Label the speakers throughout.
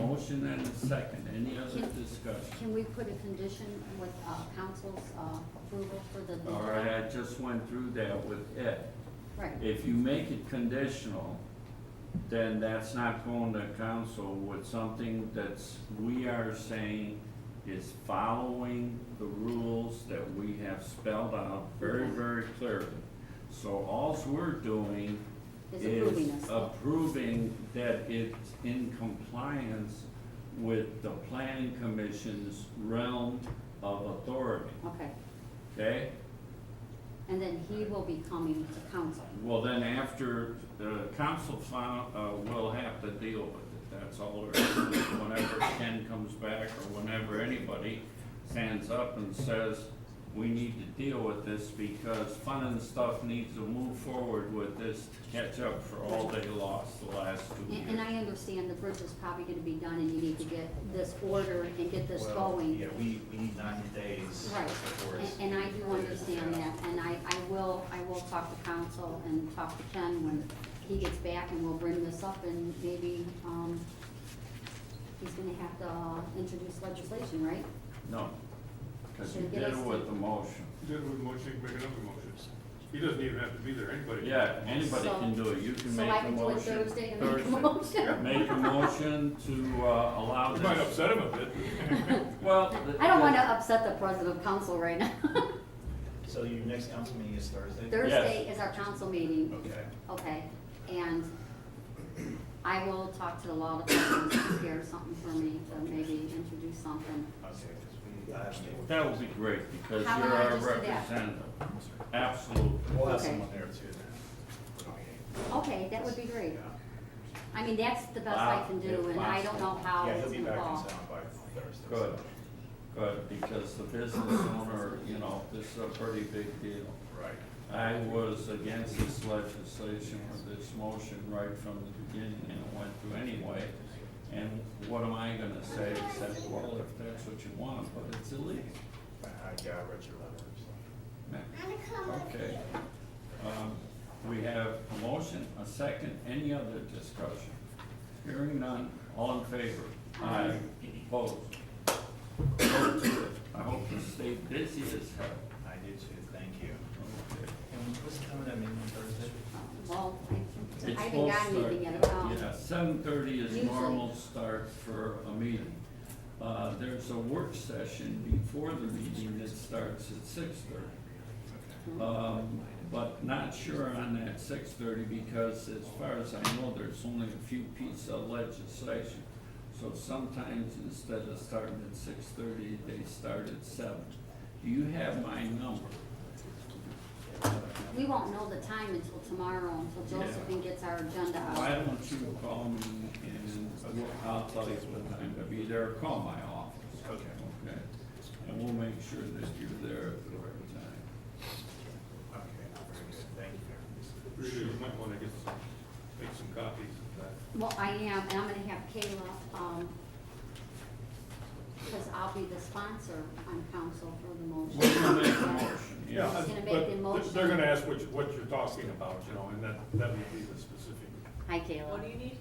Speaker 1: motion and a second. Any other discussion?
Speaker 2: Can we put a condition with uh, council's uh, approval for the?
Speaker 1: All right, I just went through that with Ed.
Speaker 2: Right,
Speaker 1: If you make it conditional, then that's not going to council with something that's, we are saying is following the rules that we have spelled out very, very clearly. So alls we're doing
Speaker 2: is approving
Speaker 1: is
Speaker 2: us.
Speaker 1: approving that it's in compliance with the planning commission's realm of authority,
Speaker 2: Okay,
Speaker 1: okay?
Speaker 2: and then he will be coming to council.
Speaker 1: Well, then after, the council final, uh, will have to deal with it, that's all there is. Whenever Ken comes back, or whenever anybody stands up and says, we need to deal with this because fun and stuff needs to move forward with this to catch up for all they lost the last two
Speaker 2: And and
Speaker 1: years.
Speaker 2: I understand the bridge is probably gonna be done and you need to get this order and get this
Speaker 3: Well,
Speaker 2: going.
Speaker 3: Yeah, we, we need ninety days
Speaker 2: Right,
Speaker 3: before it's.
Speaker 2: and, and I do understand that, and I, I will, I will talk to council and talk to Ken when he gets back, and we'll bring this up, and maybe, um, he's gonna have to uh, introduce legislation, right?
Speaker 1: No, because you
Speaker 2: Should we
Speaker 1: did
Speaker 2: get
Speaker 1: it
Speaker 2: us
Speaker 1: with
Speaker 2: to-
Speaker 1: the motion.
Speaker 4: Then we motion, make another motion. He doesn't even have to be there, anybody. can-
Speaker 1: Yeah, anybody
Speaker 2: So-
Speaker 1: can do it, you can
Speaker 2: So
Speaker 1: make
Speaker 2: I
Speaker 1: a
Speaker 2: can do it
Speaker 1: motion.
Speaker 2: Thursday and make a
Speaker 1: Thursday.
Speaker 2: motion.
Speaker 1: Make a motion to, uh, allow
Speaker 4: You
Speaker 1: this.
Speaker 4: might upset him a bit.
Speaker 1: Well. the-
Speaker 2: I don't wanna upset the president of council right now.
Speaker 3: So your next council meeting is Thursday?
Speaker 2: Thursday is our council meeting,
Speaker 3: Okay.
Speaker 2: okay, and I will talk to the law department, see if there's something for me to maybe introduce something.
Speaker 3: Okay, 'cause we, I have-
Speaker 1: That would be great, because
Speaker 2: How
Speaker 1: you're
Speaker 2: about I
Speaker 1: our
Speaker 2: just do that?
Speaker 1: representative. Absolutely.
Speaker 3: we'll have
Speaker 2: Okay.
Speaker 3: someone there too then.
Speaker 2: Okay, that would be great.
Speaker 3: Yeah.
Speaker 2: I mean, that's the best I can do, and I don't know how
Speaker 3: Yeah,
Speaker 2: it's
Speaker 3: he'll be back in
Speaker 2: involved.
Speaker 3: town by Thursday.
Speaker 1: Good, good, because the business owner, you know, this is a pretty big deal.
Speaker 3: Right.
Speaker 1: I was against this legislation or this motion right from the beginning, and it went through anyway. And what am I gonna say except, well, if that's what you want, but it's illegal.
Speaker 3: I, I yeah, I read your letter, so.
Speaker 1: Okay. Um, We have a motion, a second, any other discussion? Hearing none, all in favor? Aye. Opposed? Go to it. I hope you stay busy as hell.
Speaker 3: I do too, thank you.
Speaker 1: Okay.
Speaker 3: And what's coming up meeting Thursday?
Speaker 2: Well, I- I
Speaker 1: It's
Speaker 2: haven't gotten
Speaker 1: full
Speaker 2: anything
Speaker 1: start.
Speaker 2: yet, um,
Speaker 1: Yeah, seven thirty is
Speaker 2: Usually.
Speaker 1: normal start for a meeting. Uh, there's a work session before the meeting that starts at six thirty.
Speaker 2: Hmm.
Speaker 1: Um, but not sure on that six thirty, because as far as I know, there's only a few pieces of legislation. So sometimes instead of starting at six thirty, they start at seven. Do you have my number?
Speaker 2: we won't know the time until tomorrow, until
Speaker 1: Yeah.
Speaker 2: Josephine gets our agenda
Speaker 1: Why
Speaker 2: out.
Speaker 1: don't you call me and we'll- I'll tell you what time to be there, call my office.
Speaker 3: Okay.
Speaker 1: Okay, and we'll make sure that you're there at the right time.
Speaker 3: Okay, very good, thank you.
Speaker 4: Really, you might wanna get some, make some copies of that.
Speaker 2: Well, I am, and I'm gonna have Kayla, um, because I'll be the sponsor on council for the motion.
Speaker 1: We're gonna make a motion, yeah.
Speaker 2: He's gonna make
Speaker 4: But
Speaker 2: the motion.
Speaker 4: They're gonna ask what, you- what you're talking about, you know, and that, that would be the specific.
Speaker 2: Hi, Kayla.
Speaker 5: What do you need?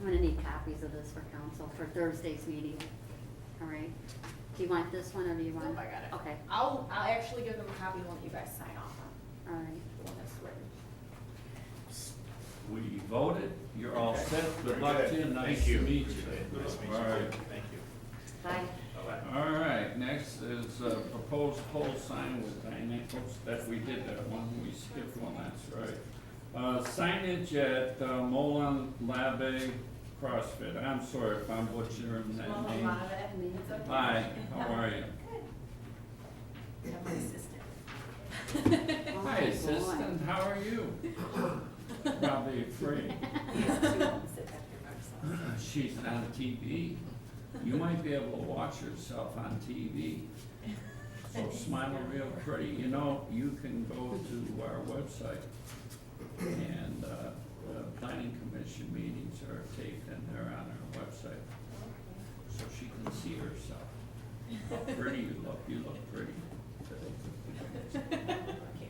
Speaker 2: I'm gonna need copies of this for council for Thursday's meeting, all right? Do you want this one, or do you want?
Speaker 5: Nope, I got it.
Speaker 2: Okay,
Speaker 5: I'll, I'll actually give them a copy and let you guys sign off on
Speaker 2: all right.
Speaker 5: the one that's written.
Speaker 1: We voted, you're all set, good
Speaker 3: Very
Speaker 1: luck
Speaker 3: good.
Speaker 1: to you, nice
Speaker 3: Thank
Speaker 1: to
Speaker 3: you.
Speaker 1: meet you.
Speaker 3: Nice to meet
Speaker 1: All
Speaker 3: you,
Speaker 1: right.
Speaker 3: too. thank you.
Speaker 2: Bye.
Speaker 3: Bye-bye.
Speaker 1: All right, next is uh, proposed pole sign with dynamic, oops, that we did that one, we skipped one, that's right. Uh, Signage at uh, Molen Labe CrossFit, I'm sorry if I'm butchering that
Speaker 5: Well, a
Speaker 1: name.
Speaker 5: lot of it, it's okay.
Speaker 1: Hi, how are you?
Speaker 5: I have
Speaker 2: Oh
Speaker 5: my assistant.
Speaker 1: Hi, assistant, how are you? Probably afraid,
Speaker 5: He has two homes that have your boxes.
Speaker 1: she's on TV. You might be able to watch yourself on TV. So smile real pretty, you know, you can go to our website and, uh, the planning commission meetings are taped and they're on our website. So she can see herself, how pretty you look, you look pretty.
Speaker 5: Okay.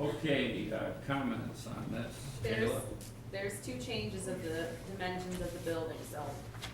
Speaker 1: Okay, uh, comments on this,
Speaker 5: There's,
Speaker 1: Kayla?
Speaker 5: there's two changes of the dimensions of the building, so